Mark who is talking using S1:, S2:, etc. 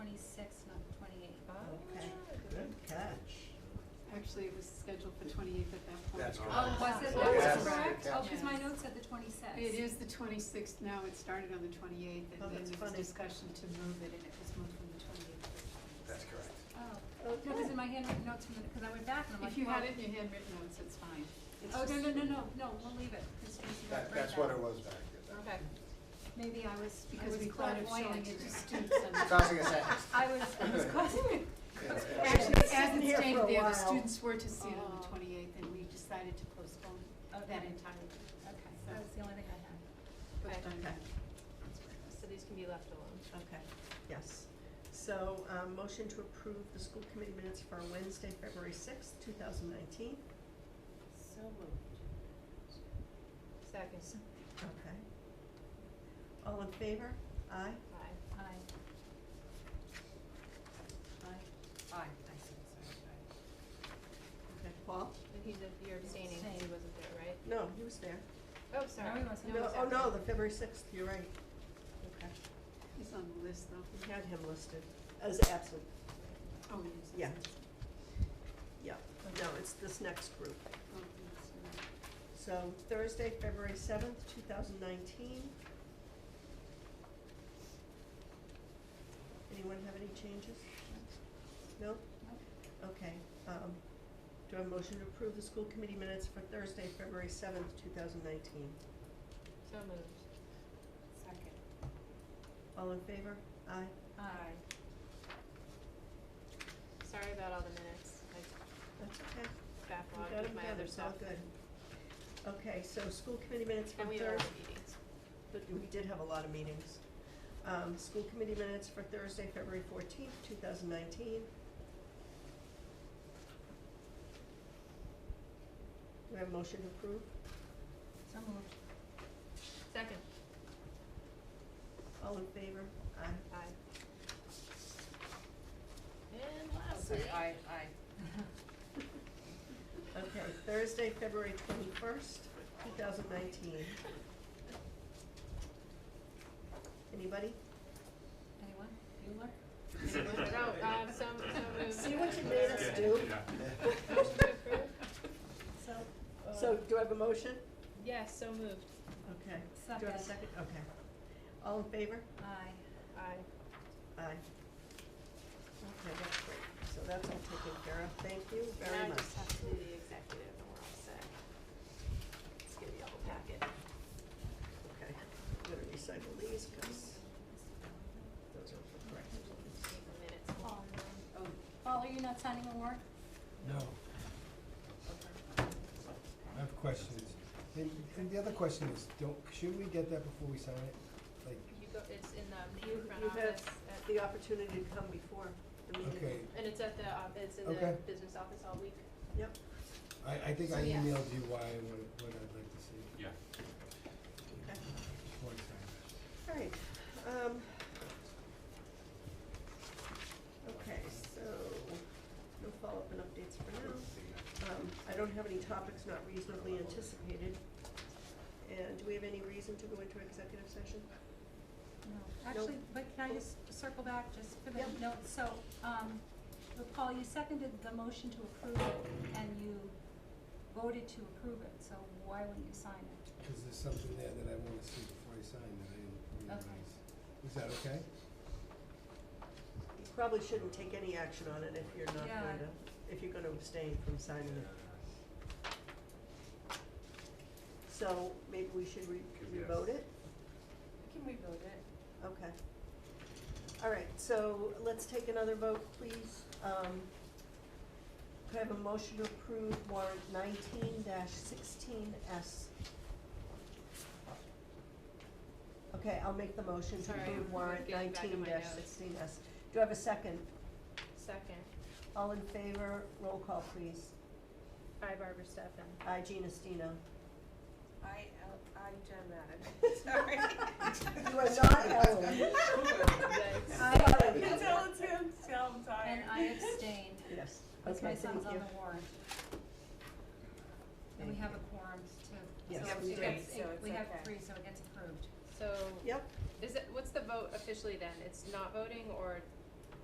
S1: Oh.
S2: actually, it was scheduled for twenty-eighth at that point.
S1: That's correct.
S3: Oh, was it, that
S1: Yes.
S3: was correct? Oh,
S2: Yes.
S3: because my notes said the twenty-sixth.
S2: It is the twenty-sixth now, it started on the twenty-eighth,
S4: Oh,
S2: and then
S4: that's
S2: there was
S4: funny.
S2: discussion to move it, and it was moved from the twenty-eighth to the
S1: That's
S2: 26th.
S1: correct.
S3: Oh, no, because in my handwritten notes, because I went back and I'm like,
S2: If you had
S3: well-
S2: it in your handwritten notes, it's fine. It's
S3: Oh, no,
S2: just-
S3: no, no, no, no, we'll leave it. 'cause we should
S1: That,
S3: write
S1: that's
S3: that.
S1: what it was back then.
S3: Okay. Maybe I was, I
S2: Because
S3: was
S2: we thought of showing
S3: clairvoyant.
S2: it to students on the.
S1: Causing a sentence.
S3: I was, I was causing.
S1: It's- it's-
S2: Actually, as
S4: Sitting
S2: it
S4: here for
S2: stated
S4: a
S2: there, the
S4: while.
S2: students were to see it on the
S3: Oh.
S2: twenty-eighth, and we decided to postpone that
S3: Okay.
S2: entirely.
S3: Okay, that was the only thing I
S2: But,
S5: Okay.
S2: um,
S4: Okay.
S5: So these can be left alone.
S4: Okay, yes. So, um, motion to approve the school committee minutes for Wednesday, February sixth, two thousand nineteen.
S5: So moved. Second.
S4: Okay. All in favor? Aye?
S5: Aye.
S3: had. Aye.
S4: Aye. Aye, I see, Okay, Paul?
S5: But he's, a- you're abstaining because he wasn't there, right?
S4: No, he was there.
S5: Oh, sorry.
S3: he wasn't.
S4: No,
S5: he's
S4: oh, no,
S5: absent.
S4: the February sixth, you're right. Okay,
S2: He's on the list, though.
S4: we had him listed as absent.
S2: Oh, yes. yes,
S4: Yeah.
S2: yes.
S4: Yeah, no, it's this next group.
S2: Oh, yes, you're right.
S4: So Thursday, February seventh, two thousand nineteen. Anyone have any changes? No? Okay, um, do I have a motion to approve the school committee minutes for Thursday, February seventh, two thousand nineteen?
S5: So moved. Second.
S4: All in favor? Aye.
S3: Aye.
S5: Sorry about all the minutes. I
S4: That's okay. We
S5: backlogged
S4: got
S5: with
S4: them
S5: my
S4: together,
S5: other
S4: it's all
S5: stuff.
S4: good. Okay, so school committee minutes for
S5: And we have
S4: Thursday.
S5: all the meetings.
S4: But we did have a lot of meetings. Um, school committee minutes for Thursday, February fourteenth, two thousand nineteen. Do we have a motion to approve?
S3: So moved.
S5: Second.
S4: All in favor? Aye.
S5: Aye. And lastly.
S4: Okay, Thursday, February twenty-first, two thousand nineteen. Anybody?
S3: Anyone? Bueller?
S5: No, um, so, so moved.
S4: See what you made us
S6: Yeah,
S4: do?
S6: yeah.
S5: Motion to approve?
S3: So.
S4: So, do I have a motion?
S5: Yes, so moved.
S4: Okay. Do I have a
S3: Second.
S4: second? Okay. All in favor?
S3: Aye.
S5: Aye.
S4: Aye. Okay, that's great. So that's all taken care of. Thank you very
S5: And I
S4: much.
S5: just have to do the executive and we're all set. Let's give you all the packet.
S4: Okay, I'm gonna recycle these because those are for correct.
S5: Take the minutes.
S3: Paul,
S2: Oh,
S3: Paul, are you not signing a warrant?
S7: No. I have questions. And, and the other question is, don't, shouldn't we get that before we sign it? Like,
S5: You go, it's in um, the,
S4: You-
S5: the front
S4: you have
S5: office, at-
S4: The opportunity to come before the meeting.
S7: okay,
S5: and it's at the, op- it's in the
S7: Okay.
S5: business office all week.
S4: Yep,
S7: I, I think
S2: So,
S7: I
S2: yeah.
S7: emailed you why, I would what I'd like to see
S6: Yeah.
S4: okay.
S7: before I sign it.
S4: All right, um. Okay, so no follow-up and updates for now. Um, I don't have any topics not reasonably anticipated. And do we have any reason to go into executive session?
S3: No, actually, but can I just circle back just for the
S4: Yep.
S3: note, so, um, but Paul, you seconded the motion to approve it and you voted to approve it, so why wouldn't you sign it?
S7: Cause there's something there that I wanna see before I sign that I didn't realize.
S3: Okay.
S7: Is that okay?
S4: You probably shouldn't take any action on it if you're not
S3: Yeah.
S4: going to, if you're going to abstain from signing it. So maybe we should re-
S6: Yes.
S4: revote it?
S5: Can we vote it?
S4: Okay. All right, so let's take another vote, please. Um, could I have a motion to approve warrant nineteen sixteen S? Okay, I'll make the motion to
S5: Sorry,
S4: approve
S5: I'm
S4: warrant
S5: getting back in
S4: nineteen
S5: my notes.
S4: sixteen S. Do I have a second?
S5: Second.
S4: All in favor, roll call, please.
S5: Hi, Barbara Stefan.
S4: Aye, Gina Stino.
S5: I, I'm Jen Madden, sorry.
S4: You are not Ellen. Sorry.
S3: Tell
S5: it's him, tell him, sorry.
S3: And I abstained,
S4: Yes,
S3: because my
S4: okay, thank
S3: son's on
S4: you.
S3: the warrant. And we
S4: Thank
S3: have
S4: you.
S3: a quorum to,
S4: Yes,
S3: so
S4: we
S3: it
S4: did.
S3: gets,
S5: So it's
S3: we have
S5: okay.
S3: three, so it gets approved.
S5: So,
S4: Yep,
S5: is it, what's the vote officially then? It's not voting or